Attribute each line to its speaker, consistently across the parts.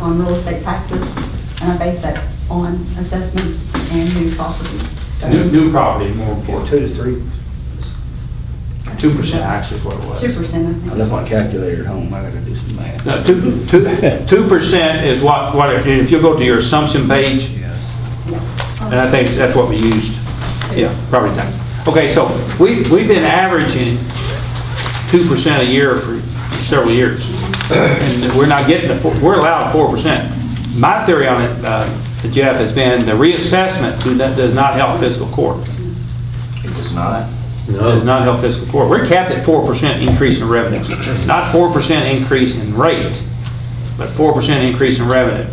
Speaker 1: on real estate taxes, and I base that on assessments and new property. So
Speaker 2: New, new property, more
Speaker 3: Two
Speaker 2: important,
Speaker 3: to three.
Speaker 2: two percent actually is what it was.
Speaker 1: Two percent, I
Speaker 3: I
Speaker 1: think.
Speaker 3: left my calculator at home, I gotta do some math.
Speaker 2: No, two, two, two percent is what, what, it- if you go to your assumption page,
Speaker 3: Yes.
Speaker 1: Yeah.
Speaker 2: and I think that's what we used. Yeah, property tax. Okay, so we, we've been averaging two percent a year for several years. And we're not getting the, four- we're allowed four percent. My theory on it, uh, Jeff, has been the reassessment do not- does not help fiscal court.
Speaker 3: It does not.
Speaker 2: does not help fiscal court. We're capped at four percent increase in revenues, not four percent increase in rate, but four percent increase in revenue.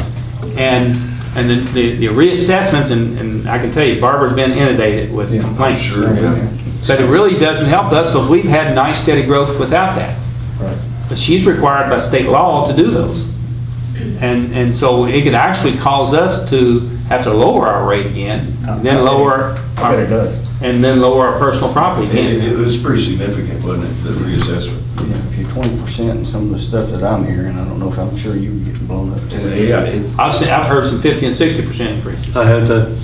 Speaker 2: And, and the, the- the reassessments, and, and I can tell you, Barbara's been inundated with complaints. But it really doesn't help us because we've had nice steady growth without that.
Speaker 3: Right.
Speaker 2: But she's required by state law to do those. And, and so it could actually cause us to have to lower our rate again, then lower.
Speaker 3: I bet it
Speaker 2: our-
Speaker 3: does.
Speaker 2: And then lower our personal property
Speaker 4: It,
Speaker 2: again.
Speaker 4: it- it was pretty significant, wasn't it, the reassessment?
Speaker 3: Yeah, if you're twenty percent and some of the stuff that I'm hearing, I don't know if I'm sure you were getting blown up today.
Speaker 4: Uh, Yeah, it-
Speaker 2: I've seen, I've heard some 50 and 60 percent increases,
Speaker 5: I have to,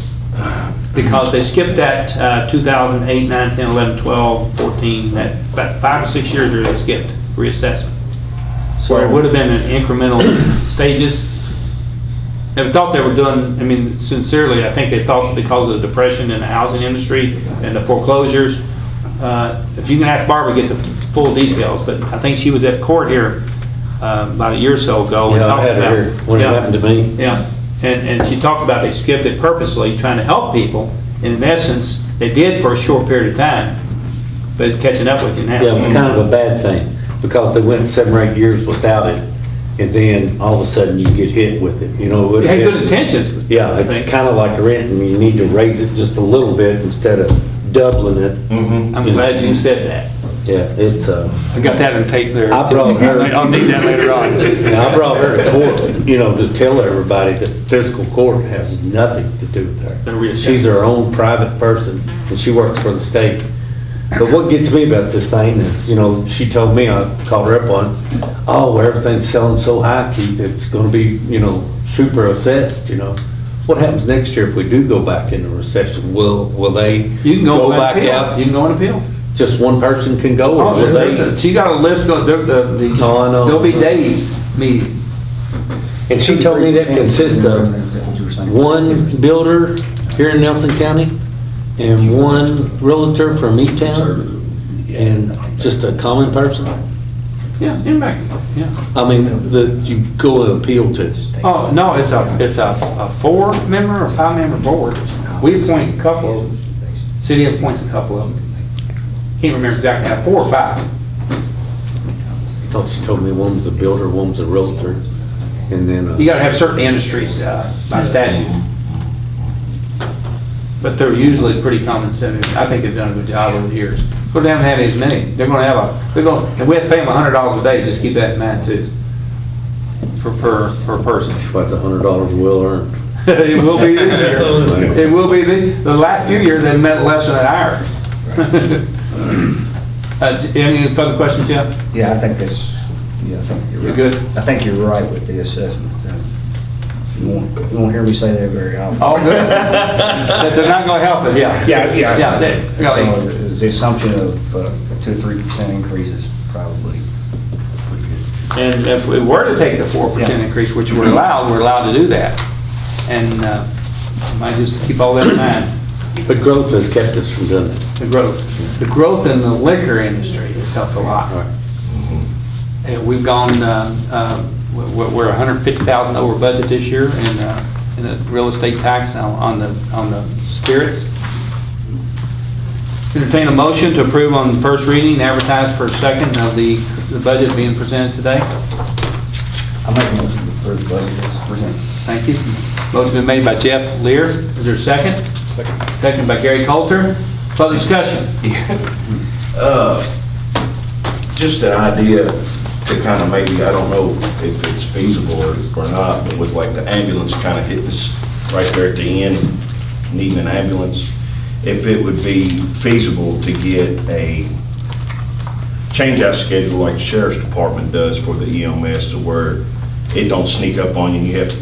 Speaker 2: because they skipped that uh, 2008, 9, 10, 11, 12, 14, that, about five or six years ago, they skipped reassessment. So it would have been in incremental stages. Never thought they were doing, I mean, sincerely, I think they thought because of the depression in the housing industry and the foreclosures, uh, if you can ask Barbara to get the full details, but I think she was at court here uh, about a year or so ago. and
Speaker 5: yeah, I
Speaker 2: talked
Speaker 5: had it
Speaker 2: about-
Speaker 5: here when it
Speaker 2: Yeah.
Speaker 5: happened to me.
Speaker 2: Yeah, and, and she talked about they skipped it purposely, trying to help people. And in essence, they did for a short period of time, but it's catching up with you now.
Speaker 5: Yeah, it was kind of a bad thing because they went seven or eight years without it and then all of a sudden you get hit with it, you know? it
Speaker 2: They
Speaker 5: would've
Speaker 2: had
Speaker 5: been-
Speaker 2: good intentions.
Speaker 5: Yeah,
Speaker 2: I
Speaker 5: it's
Speaker 2: think.
Speaker 5: kind of like rent and you need to raise it just a little bit instead of doubling it.
Speaker 2: I'm glad you said that.
Speaker 5: Yeah, it's, uh,
Speaker 2: I got that on tape there.
Speaker 5: I brought her-
Speaker 2: I'll need that later on.
Speaker 5: and I brought her to court, you know, to tell everybody that fiscal court has nothing to do with
Speaker 2: The reassessment.
Speaker 5: her. She's her own private person and she works for the state. But what gets me about this thing is, you know, she told me, I called her up on, oh, everything's selling so high, Keith, it's gonna be, you know, super assessed, you know. What happens next year if we do go back into recession? Will, will they
Speaker 2: You can go
Speaker 5: go back
Speaker 2: appeal. You
Speaker 5: out?
Speaker 2: can go and appeal.
Speaker 5: Just one person can go or
Speaker 2: Oh,
Speaker 5: will
Speaker 2: there's a-
Speaker 5: they?
Speaker 2: She got a list, of- there- the, the,
Speaker 5: Oh, I know.
Speaker 2: there'll be days meeting.
Speaker 5: And she told me that consists of one builder here in Nelson County and one realtor from each town and just a common person.
Speaker 2: Yeah, in back, yeah.
Speaker 5: I mean, that you go and appeal to.
Speaker 2: Oh, no, it's a, it's a, a four-member or five-member board. We appoint a couple of them. City appoints a couple of them. Can't remember exactly, now, four or five.
Speaker 5: Thought she told me one was a builder, one was a realtor, and then,
Speaker 2: You
Speaker 5: uh,
Speaker 2: gotta have certain industries, uh, by statute. But they're usually pretty common sense. I think they've done a good job over the years. But they haven't had as many. They're gonna have a, they're gonna, and we have to pay them a hundred dollars a day, just keep that in mind too. For, per, per person.
Speaker 5: that's a hundred dollars well earned.
Speaker 2: It will be this year. It will be, the, the last few years, they've met less than an hour. Uh, j- any further questions, Jeff?
Speaker 3: Yeah, I think that's, yeah, I think you're
Speaker 2: You're
Speaker 3: right.
Speaker 2: good?
Speaker 3: I think you're right with the assessment. You won't, you won't hear me say that very often.
Speaker 2: All good? That they're not gonna help us, yeah.
Speaker 3: Yeah, yeah.
Speaker 2: Yeah, they-
Speaker 3: So it was the assumption of uh, two, three percent increase is probably pretty good.
Speaker 2: And if we were to take the four percent
Speaker 3: Yeah.
Speaker 2: increase, which we're allowed, we're allowed to do that. And, uh, might just keep all that in mind,
Speaker 5: But growth has kept us from doing it.
Speaker 2: the growth. The growth in the liquor industry has helped a lot. And we've gone, uh, um, we're, we're hundred fifty thousand over budget this year in, uh, in the real estate tax on on the, on the spirits. Entertain a motion to approve on the first reading, advertise for a second of the, the budget being presented today.
Speaker 3: I make a motion to approve the budget as presented.
Speaker 2: Thank you. Motion been made by Jeff Lear. Is there a second? Second by Gary Coulter. Further discussion?
Speaker 4: Uh, Just an idea to kind of maybe, I don't know if it's feasible or or not, but with like the ambulance kind of hitting us right there at the end, needing an ambulance, if it would be feasible to get a change out schedule like the sheriff's department does for the EMS E to where it don't sneak up on you, and you have to